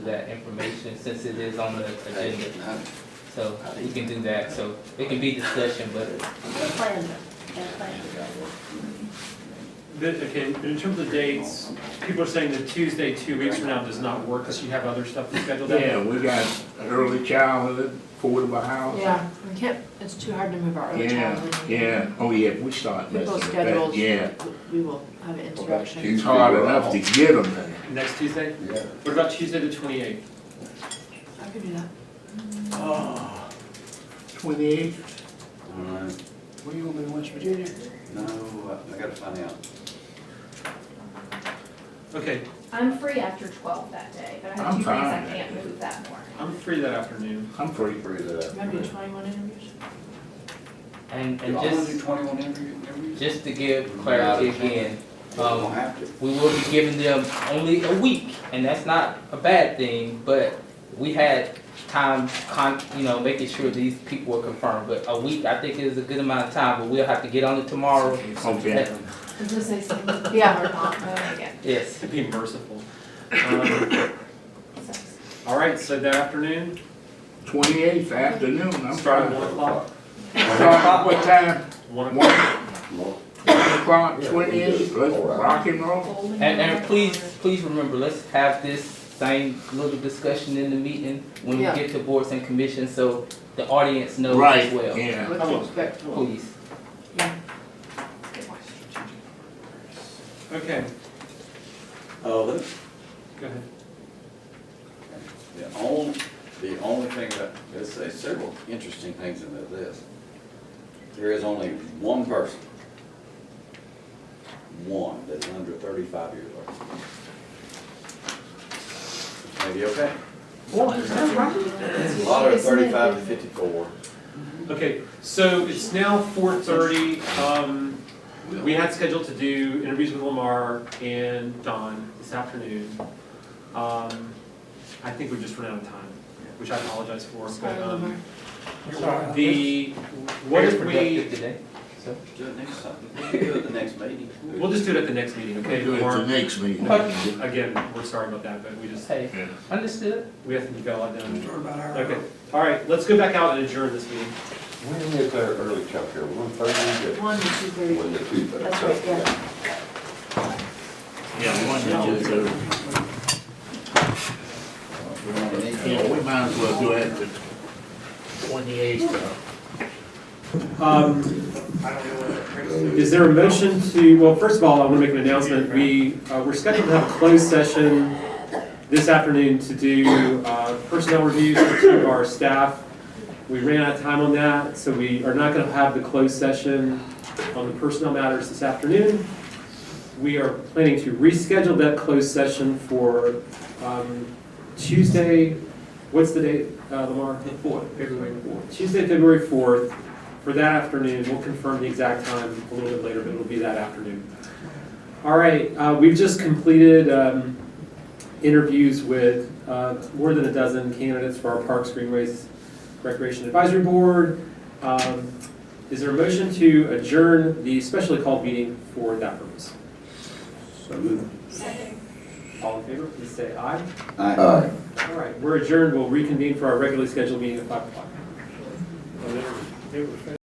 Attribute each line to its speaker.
Speaker 1: that information since it is on the agenda.
Speaker 2: That's
Speaker 1: So we can do that, so it can be discussion, but
Speaker 3: And plans, and plans.
Speaker 4: The- Okay, in terms of dates, people are saying that Tuesday, two weeks from now does not work because you have other stuff to schedule that.
Speaker 5: Yeah, we got early childhood, affordable housing.
Speaker 6: Yeah, we can't, it's too hard to move our early
Speaker 5: Yeah,
Speaker 6: childhood.
Speaker 5: yeah, oh yeah, we start messing
Speaker 6: People's
Speaker 5: with that,
Speaker 6: schedules,
Speaker 5: yeah.
Speaker 6: we will have an interruption.
Speaker 5: It's hard enough to get them there.
Speaker 4: Next Tuesday?
Speaker 2: Yeah.
Speaker 4: What about Tuesday the twenty-eighth?
Speaker 6: I could do that.
Speaker 4: Oh.
Speaker 5: Twenty-eight?
Speaker 2: Alright.
Speaker 5: Where you gonna be in West Virginia?
Speaker 2: No, I I gotta find out.
Speaker 4: Okay,
Speaker 7: I'm free after twelve that day, but I have
Speaker 5: I'm
Speaker 7: two days I
Speaker 5: fine.
Speaker 7: can't move that morning.
Speaker 4: I'm free that afternoon.
Speaker 5: I'm free.
Speaker 2: Free that.
Speaker 6: Remember the twenty-one interviews?
Speaker 1: and,
Speaker 2: Do
Speaker 1: and
Speaker 2: all of you
Speaker 1: just,
Speaker 2: twenty-one interview- interviews?
Speaker 1: just to give clarity again,
Speaker 2: You don't
Speaker 1: um,
Speaker 2: have to.
Speaker 1: we will be giving them only a week, and that's not a bad thing, but we had time con, you know, making sure these people were confirmed, but a week, I think is a good amount of time, but we'll have to get on it tomorrow.
Speaker 5: Okay.
Speaker 6: I was gonna say something. Yeah, or not. Oh,
Speaker 7: Not again.
Speaker 1: Yes,
Speaker 4: To be merciful. Um,
Speaker 7: Sucks.
Speaker 4: All right, so that afternoon,
Speaker 5: Twenty-eighth afternoon, I'm
Speaker 4: starting one
Speaker 5: fine.
Speaker 4: o'clock.
Speaker 5: Start what time?
Speaker 4: One
Speaker 5: One
Speaker 4: o'clock.
Speaker 5: o'clock, twenty-eight, let's rock and roll.
Speaker 1: and, and please, please remember, let's have this same little discussion in the meeting when we
Speaker 6: Yeah.
Speaker 1: get to boards and commissions, so the audience knows
Speaker 5: Right,
Speaker 1: as well.
Speaker 5: yeah.
Speaker 6: What to expect.
Speaker 1: Please.
Speaker 6: Yeah.
Speaker 7: Good watch.
Speaker 4: Okay,
Speaker 2: Oh, that's
Speaker 4: go ahead.
Speaker 2: The only, the only thing that, there's there's several interesting things in this. There is only one person, one that's under thirty-five years old. Maybe okay? A lot of thirty-five to fifty-four.
Speaker 4: Okay, so it's now four thirty, um, we had scheduled to do interviews with Lamar and Don this afternoon. Um, I think we just ran out of time, which I apologize for,
Speaker 6: Sorry,
Speaker 4: but,
Speaker 6: Lamar.
Speaker 4: um, the, what if
Speaker 1: productive
Speaker 4: we,
Speaker 1: today. So,
Speaker 2: Do it next time, we can do it the next meeting.
Speaker 4: we'll just do it at the next meeting, okay?
Speaker 5: Do it the
Speaker 4: Or-
Speaker 5: next meeting.
Speaker 1: Okay.
Speaker 4: Again, we're sorry about that, but we just,
Speaker 1: hey,
Speaker 5: Yeah.
Speaker 1: understood.
Speaker 4: we have to get a lot done. Okay, all right, let's go back out and adjourn this meeting.
Speaker 8: When is our early childcare? here? One thirty,
Speaker 6: One to two
Speaker 8: one
Speaker 6: thirty.
Speaker 8: to two thirty?
Speaker 6: That's right, yeah.
Speaker 5: Yeah, one to two thirty. Yeah, we might as well do it the twenty-eighth though.
Speaker 4: Um, Is there a motion to, well, first of all, I want to make an announcement. We, uh, we're scheduled to have a closed session this afternoon to do uh, personnel reviews for two of our staff. We ran out of time on that, so we are not going to have the closed session on the personnel matters this afternoon. We are planning to reschedule that closed session for um, Tuesday, what's the date, uh, Lamar? The fourth. February fourth. Tuesday, February fourth, for that afternoon. We'll confirm the exact time a little bit later, but it'll be that afternoon. All right, uh, we've just completed um, interviews with uh, more than a dozen candidates for our Parks, Greenways, Recreation Advisory Board. Um, Is there a motion to adjourn the specially called meeting for that purpose? All in favor, please say aye.
Speaker 8: Aye.
Speaker 4: All right, we're adjourned. We'll reconvene for our regularly scheduled meeting at five o'clock.